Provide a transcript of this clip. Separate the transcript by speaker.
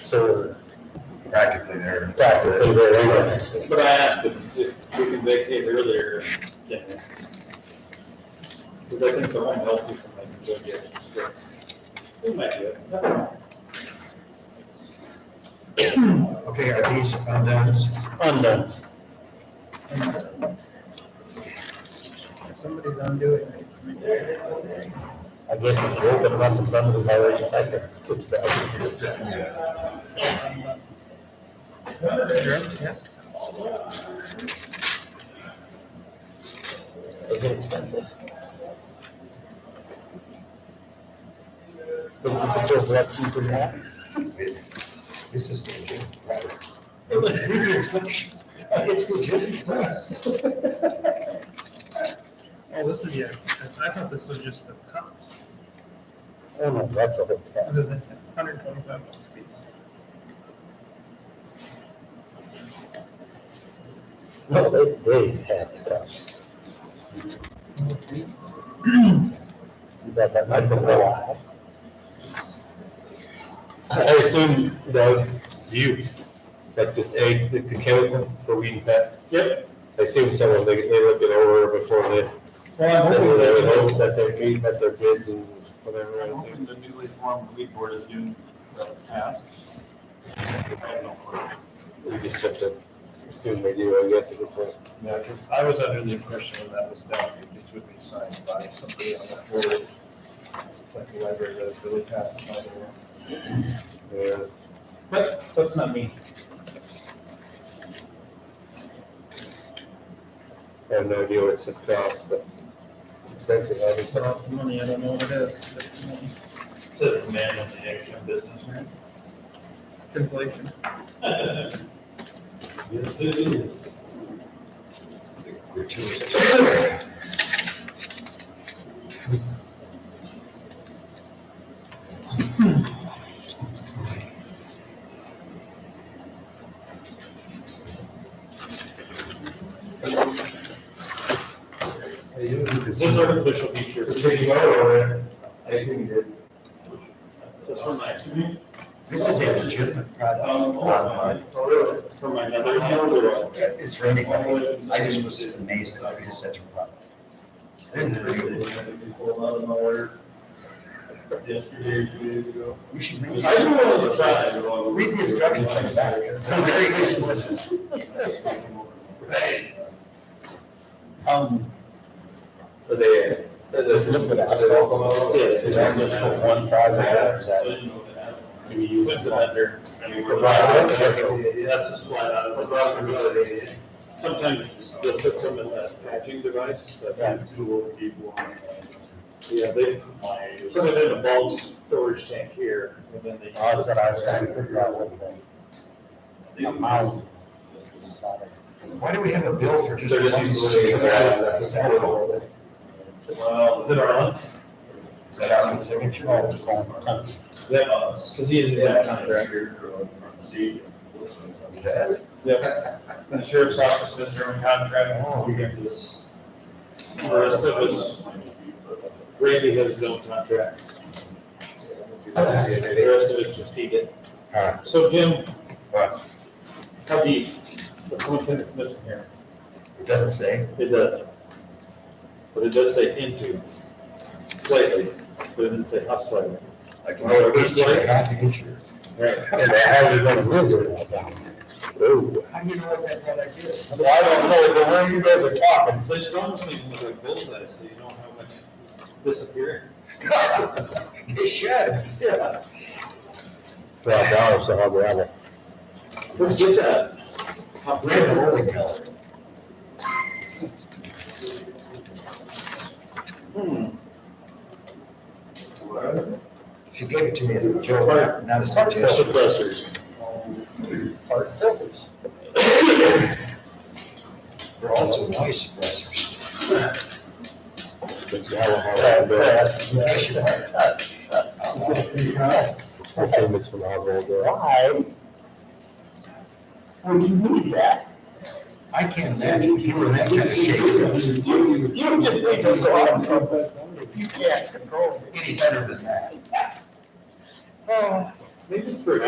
Speaker 1: so
Speaker 2: practically there.
Speaker 1: practically there anyway. so.
Speaker 3: But I asked if, if we can vacate earlier, can we? Because I think the one health people might be good yet. They might do it. Never mind.
Speaker 2: Okay, are these undone?
Speaker 1: Undone.
Speaker 4: Somebody's undoing it.
Speaker 1: I guess if you open it up and somebody's already stuck there, it's bad.
Speaker 2: Yeah.
Speaker 4: Drug test.
Speaker 1: Those are expensive. Think you could go for that cheaper than that?
Speaker 2: This is legit, Robert. It was really expensive. It's legit.
Speaker 4: Oh, this is the actual test. I thought this was just the cups.
Speaker 1: Oh no, that's a whole
Speaker 4: This is
Speaker 1: test.
Speaker 4: the test. Hundred twenty-five bucks a piece.
Speaker 1: No, they, they have the cost. You bet that might be a while.
Speaker 5: I assume, Doug, you, like this egg, the the chemical for weed and pest? Yep. I assume someone, they, they look it over before they,
Speaker 4: Well, I'm
Speaker 5: they
Speaker 4: hoping
Speaker 5: would
Speaker 4: that-
Speaker 5: hope that they're meeting at their bids and whatever, I
Speaker 3: I'm hoping
Speaker 5: assume.
Speaker 3: the newly formed weed board is doing the task. I have no clue.
Speaker 5: We just have to assume they do, I guess, at this point.
Speaker 6: Yeah, because I was under the impression when that was done, it would be signed by somebody on that board, like a library that is really passing by the law.
Speaker 5: Yeah.
Speaker 3: But that's not me.
Speaker 5: I have no idea what it's cost, but it's expensive, obviously.
Speaker 4: Lots of money. I don't know what it is. but, you know,
Speaker 3: It says the man in the action business, right?
Speaker 4: It's inflation.
Speaker 3: Yes, it is. Is this artificial feature?
Speaker 5: I assume you did.
Speaker 3: Just for my,
Speaker 2: This is a legitimate product.
Speaker 3: um,
Speaker 2: Online.
Speaker 3: for my other hand or?
Speaker 2: It's for anybody. I just was amazed that there is such a product.
Speaker 3: Pulled out of nowhere yesterday, or two days ago.
Speaker 2: You should read
Speaker 3: I just wanted to
Speaker 2: it.
Speaker 3: try it.
Speaker 2: Read the instructions like that. I'm very good to listen.
Speaker 3: Right. Um,
Speaker 5: Are they, there's a little bit of alcohol?
Speaker 3: Yes.
Speaker 2: Is that just for one project or is
Speaker 3: so
Speaker 2: that?
Speaker 3: you know that. Maybe you with the vendor. I mean, we're- That's a slide out of the. Sometimes they'll put some in that patching device
Speaker 2: Yeah.
Speaker 3: that is dual people on. Yeah, they put it in a bulk storage tank here and then they.
Speaker 1: Oh, that's what I was trying to figure out what the
Speaker 3: they-
Speaker 1: amount.
Speaker 2: Why do we have a bill for just?
Speaker 5: They're just
Speaker 2: one
Speaker 5: using
Speaker 2: signature?
Speaker 5: it.
Speaker 2: Is that all?
Speaker 3: Well, is it our?
Speaker 2: Is that our own signature?
Speaker 3: That us. Cause he is.
Speaker 6: Yeah.
Speaker 3: See.
Speaker 2: That's-
Speaker 3: Yep. And the sheriff's office says they're in contract, oh, we get this. The rest of us, Brady has his own contract. The rest of us just need it.
Speaker 2: Alright.
Speaker 3: So Jim.
Speaker 2: What?
Speaker 3: How deep? That's one thing that's missing here.
Speaker 2: It doesn't say.
Speaker 3: It doesn't. But it does say into slightly, but it doesn't say how slightly.
Speaker 2: Like,
Speaker 3: Well, it looks like-
Speaker 2: half an inch.
Speaker 3: Right.
Speaker 1: And I haven't been living that down. Ooh.
Speaker 2: How do you know what that product is?
Speaker 1: Well, I don't know, but when you guys are talking,
Speaker 3: They should almost make them look like bullseye, so you don't have much disappear.
Speaker 2: It should.
Speaker 3: Yeah.
Speaker 1: twelve dollars to have gravel.
Speaker 3: Where'd you get that? How
Speaker 2: Red rolling color.
Speaker 3: Hmm.
Speaker 2: She gave it to me as a joke, not a suggestion.
Speaker 3: Suppressors.
Speaker 1: Hard filters.
Speaker 2: They're also noise suppressors.
Speaker 1: But you have a hard bill. I assume it's from Oswald. Why? Would you need that?
Speaker 2: I can't imagine if you were that kind of shape,
Speaker 1: You, you just need to go out and You can't control it.
Speaker 2: any better than that.
Speaker 1: Oh.
Speaker 3: Maybe it's for